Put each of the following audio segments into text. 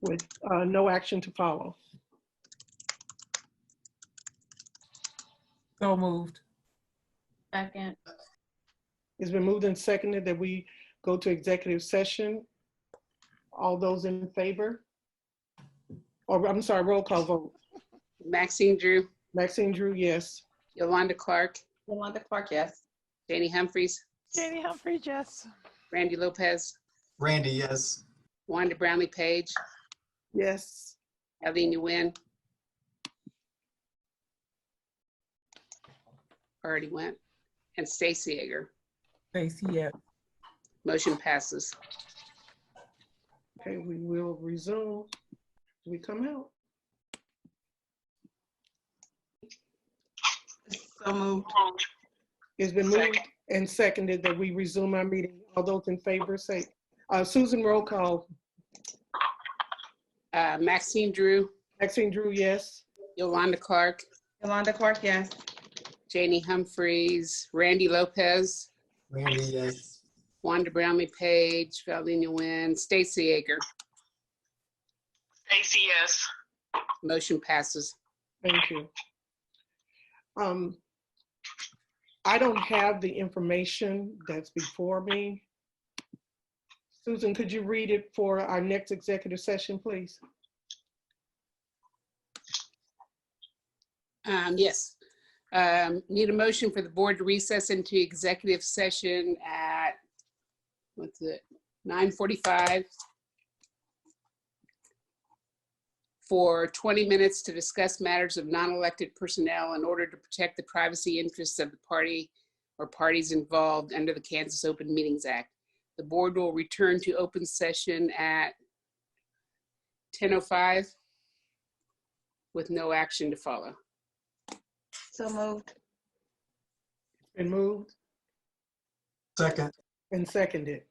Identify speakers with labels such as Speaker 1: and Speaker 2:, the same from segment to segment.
Speaker 1: with uh, no action to follow.
Speaker 2: So moved.
Speaker 3: Second,
Speaker 1: It's been moved and seconded that we go to executive session. All those in favor? Or, I'm sorry, roll call vote.
Speaker 4: Maxine Drew,
Speaker 1: Maxine Drew, yes.
Speaker 4: Yolanda Clark,
Speaker 3: Yolanda Clark, yes.
Speaker 4: Janie Humphries,
Speaker 5: Janie Humphries, yes.
Speaker 4: Randy Lopez,
Speaker 6: Randy, yes.
Speaker 4: Wanda Brownlee Page,
Speaker 1: Yes.
Speaker 4: Eileen Nguyen. Already went. And Stacy Egger.
Speaker 2: Stacy, yes.
Speaker 4: Motion passes.
Speaker 1: Okay, we will resume. Do we come out?
Speaker 3: So moved.
Speaker 1: It's been moved and seconded that we resume our meeting. All those in favor say, uh, Susan, roll call.
Speaker 4: Uh, Maxine Drew,
Speaker 1: Maxine Drew, yes.
Speaker 4: Yolanda Clark,
Speaker 3: Yolanda Clark, yes.
Speaker 4: Janie Humphries, Randy Lopez,
Speaker 6: Randy, yes.
Speaker 4: Wanda Brownlee Page, Eileen Nguyen, Stacy Egger.
Speaker 7: Stacy, yes.
Speaker 4: Motion passes.
Speaker 1: Thank you. Um, I don't have the information that's before me. Susan, could you read it for our next executive session, please?
Speaker 4: Um, yes. Um, need a motion for the board to recess into executive session at, what's it, nine forty-five? For twenty minutes to discuss matters of non-elected personnel in order to protect the privacy interests of the party or parties involved under the Kansas Open Meetings Act. The board will return to open session at ten oh five with no action to follow.
Speaker 3: So moved.
Speaker 1: Been moved
Speaker 6: Second,
Speaker 1: and seconded.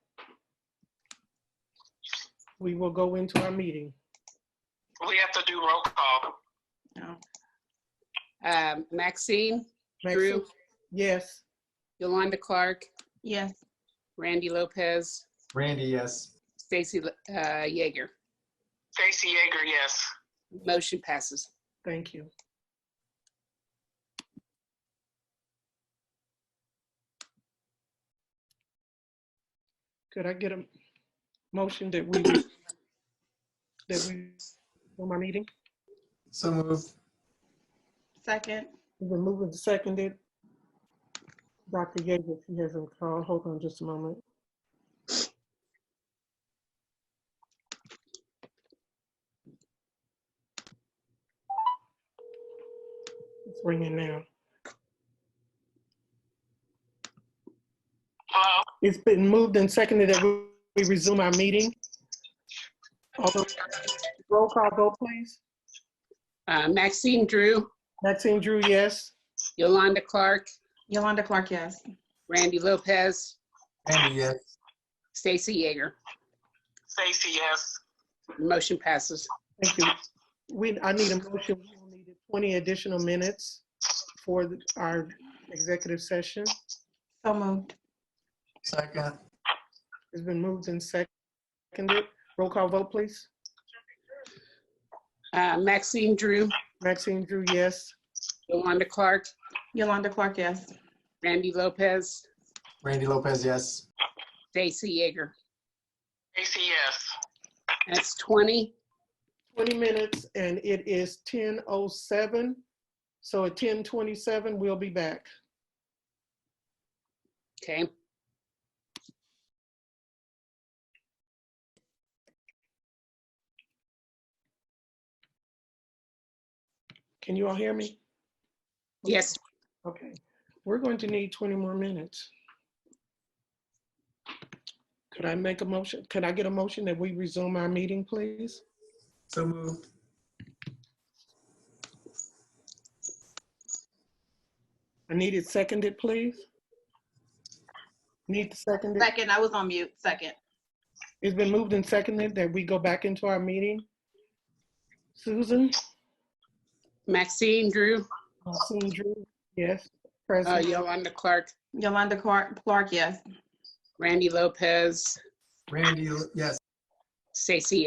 Speaker 1: We will go into our meeting.
Speaker 7: We have to do roll call.
Speaker 4: Um, Maxine,
Speaker 1: Maxine?
Speaker 4: Drew.
Speaker 1: Yes.
Speaker 4: Yolanda Clark,
Speaker 3: Yes.
Speaker 4: Randy Lopez,
Speaker 6: Randy, yes.
Speaker 4: Stacy uh, Jaeger.
Speaker 7: Stacy Jaeger, yes.
Speaker 4: Motion passes.
Speaker 1: Thank you. Could I get a motion that we, that we, for my meeting?
Speaker 6: So moved.
Speaker 3: Second.
Speaker 1: We've been moving to seconded. Dr. Yeager, she hasn't called. Hold on just a moment. It's ringing now.
Speaker 7: Hello?
Speaker 1: It's been moved and seconded that we we resume our meeting. Although, roll call vote, please.
Speaker 4: Uh, Maxine Drew,
Speaker 1: Maxine Drew, yes.
Speaker 4: Yolanda Clark,
Speaker 3: Yolanda Clark, yes.
Speaker 4: Randy Lopez,
Speaker 6: Randy, yes.
Speaker 4: Stacy Jaeger.
Speaker 7: Stacy, yes.
Speaker 4: Motion passes.
Speaker 1: Thank you. We, I need a motion, we will need 20 additional minutes for the- our executive session.
Speaker 3: So moved.
Speaker 6: Second,
Speaker 1: It's been moved and seconded. Roll call vote, please.
Speaker 4: Uh, Maxine Drew,
Speaker 1: Maxine Drew, yes.
Speaker 4: Yolanda Clark,
Speaker 3: Yolanda Clark, yes.
Speaker 4: Randy Lopez,
Speaker 6: Randy Lopez, yes.
Speaker 4: Stacy Jaeger.
Speaker 7: Stacy, yes.
Speaker 4: That's 20.
Speaker 1: 20 minutes, and it is 10:07. So at 10:27, we'll be back.
Speaker 4: Okay.
Speaker 1: Can you all hear me?
Speaker 4: Yes.
Speaker 1: Okay, we're going to need 20 more minutes. Could I make a motion? Could I get a motion that we resume our meeting, please?
Speaker 6: So moved.
Speaker 1: I need it seconded, please. Need seconded.
Speaker 3: Second, I was on mute. Second.
Speaker 1: It's been moved and seconded that we go back into our meeting. Susan?
Speaker 4: Maxine Drew,
Speaker 1: Susan Drew, Yes,
Speaker 4: uh,
Speaker 1: present.
Speaker 4: Yolanda Clark,
Speaker 3: Yolanda Clark, Clark, yes.
Speaker 4: Randy Lopez,
Speaker 6: Randy, yes.
Speaker 4: Stacy